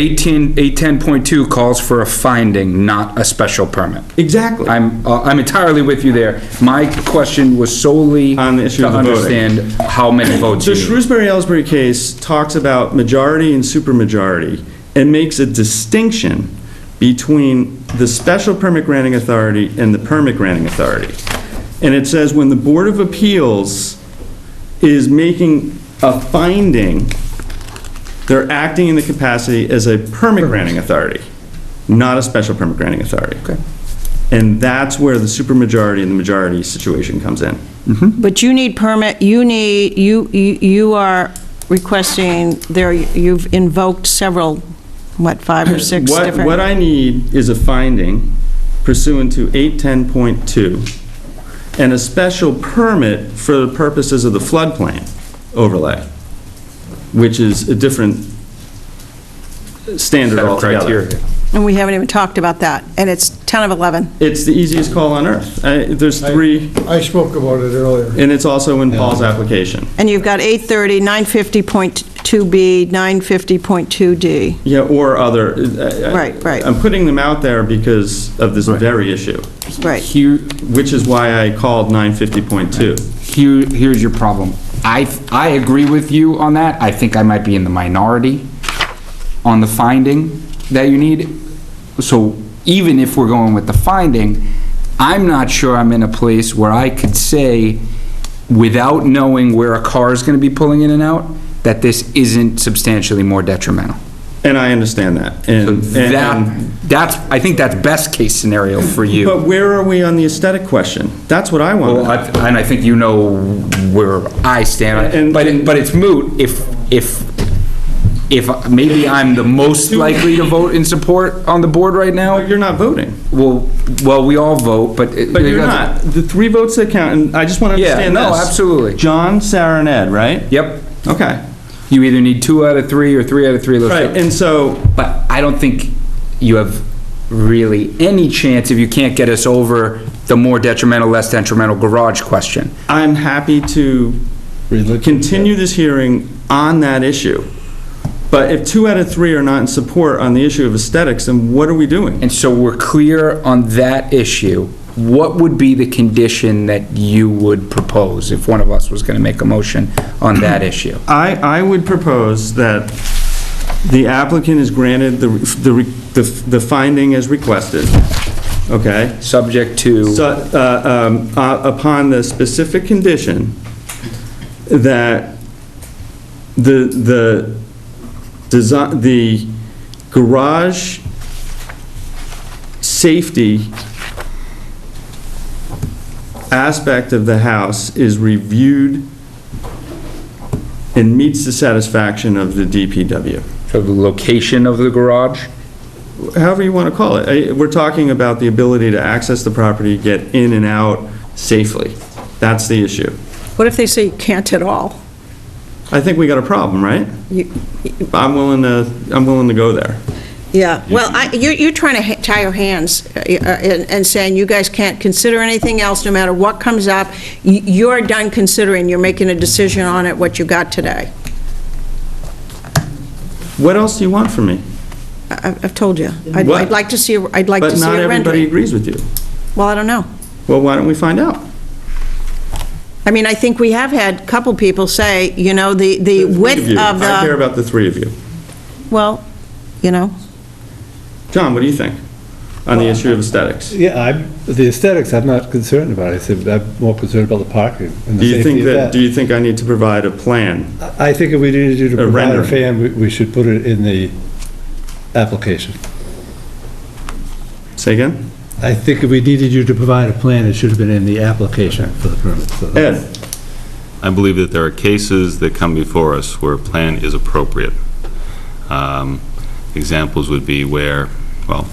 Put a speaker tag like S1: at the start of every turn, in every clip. S1: Eighteen, eight ten point two calls for a finding, not a special permit.
S2: Exactly.
S1: I'm, uh, I'm entirely with you there. My question was solely.
S2: On the issue of the
S1: To
S2: voting.
S1: understand how many votes you
S2: The
S1: need.
S2: Shrewsbury-Ellsbury case talks about majority and supermajority and makes a distinction between the special permit granting authority and the permit granting authority. And it says when the Board of Appeals is making a finding, they're acting in the capacity as a permit granting authority, not a special permit granting authority. Okay. And that's where the supermajority and the majority situation comes in.
S3: But you need permit, you need, you, you you are requesting, there, you've invoked several, what, five or six
S2: What-
S3: different?
S2: What I need is a finding pursuant to 810.2 and a special permit for the purposes of the floodplain overlay, which is a different standard
S1: Set of
S2: altogether.
S1: criteria.
S3: And we haven't even talked about that, and it's 10 of 11.
S2: It's the easiest call on earth. I- There's three,
S4: I spoke about it earlier.
S2: and it's also in Paul's application.
S3: And you've got 830, 950.2B, 950.2D.
S2: Yeah, or other. I- I-
S3: Right, right.
S2: I'm putting them out there because of this very issue,
S3: Right.
S1: Here,
S2: which is why I called 950.2.
S1: here, here's your problem. I, I agree with you on that. I think I might be in the minority on the finding that you need. So even if we're going with the finding, I'm not sure I'm in a place where I could say, without knowing where a car is gonna be pulling in and out, that this isn't substantially more detrimental.
S2: And I understand that. And- and-
S1: That, that's, I think that's best case scenario for you.
S2: But where are we on the aesthetic question? That's what I want. to
S1: Well,
S2: know.
S1: I- And I think you know where I stand, on it.
S2: And-
S1: but, it- but it's moot if, if, if maybe I'm the most likely to vote in support on the board right now,
S2: But you're not voting.
S1: well, well, we all vote, but. it-
S2: But you're not. The three votes that count, and I just want to
S1: Yeah,
S2: understand this.
S1: no, absolutely.
S2: John, Sarah, and Ed, right?
S1: Yep,
S2: Okay.
S1: you either need two out of three or three out of three. those
S2: Right,
S1: things.
S2: and so,
S1: But I don't think you have really any chance if you can't get us over the more detrimental, less detrimental garage question.
S2: I'm happy to continue this hearing on that issue. But if two out of three are not in support on the issue of aesthetics, then what are we doing?
S1: And so we're clear on that issue. What would be the condition that you would propose if one of us was gonna make a motion on that issue?
S2: I, I would propose that the applicant is granted the, the, the the finding as requested, okay?
S1: Subject to,
S2: So, uh, um, uh, upon the specific condition that the, the, desi the garage safety aspect of the house is reviewed and meets the satisfaction of the DPW.
S1: to the location of the garage?
S2: However you want to call it, I- we're talking about the ability to access the property, get in and out safely. That's the issue.
S3: What if they say you can't at all?
S2: I think we got a problem, right?
S3: You-
S2: I'm willing to, I'm willing to go there.
S3: Yeah, well, I, you're, you're trying to ha- tie your hands uh, uh, and and saying you guys can't consider anything else, no matter what comes up. Y- You're done considering, you're making a decision on it, what you got today.
S2: What else do you want from me?
S3: I- I've I've told you. I'd
S2: What?
S3: I'd like to see, a- I'd like to
S2: But
S3: see
S2: not
S3: a
S2: everybody
S3: rendering.
S2: agrees with you.
S3: Well, I don't know.
S2: Well, why don't we find out?
S3: I mean, I think we have had a couple people say, you know, the the
S2: Three
S3: width
S2: you.
S3: of
S2: I care
S3: the,
S2: about the three of you.
S3: well, you know,
S2: John, what do you think on the issue of aesthetics?
S5: Yeah, I'm, the aesthetics, I'm not concerned about. I said, I'm more concerned about the parking
S2: Do
S5: and the
S2: you think
S5: safety of
S2: that, do
S5: that.
S2: you think I need to provide a plan?
S5: I I think if we needed you to
S2: A
S5: provide a
S2: rendering.
S5: fan, we- we should put it in the application.
S2: Say again?
S5: I think if we needed you to provide a plan, it should have been in the application for the permit. so that-
S2: Ed?
S6: I believe that there are cases that come before us where a plan is appropriate. Um, Examples would be where, well,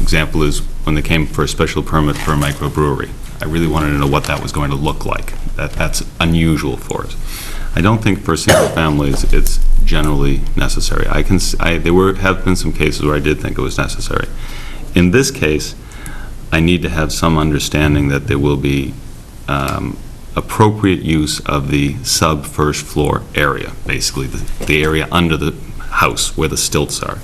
S6: example is when they came for a special permit for a microbrewery. I really wanted to know what that was going to look like. That, that's unusual for us. I don't think for single families, it's generally necessary. I can, s- I, there were, have been some cases where I did think it was necessary. In this case, I need to have some understanding that there will be um, appropriate use of the sub-first floor area, basically, the the area under the house where the stilts are.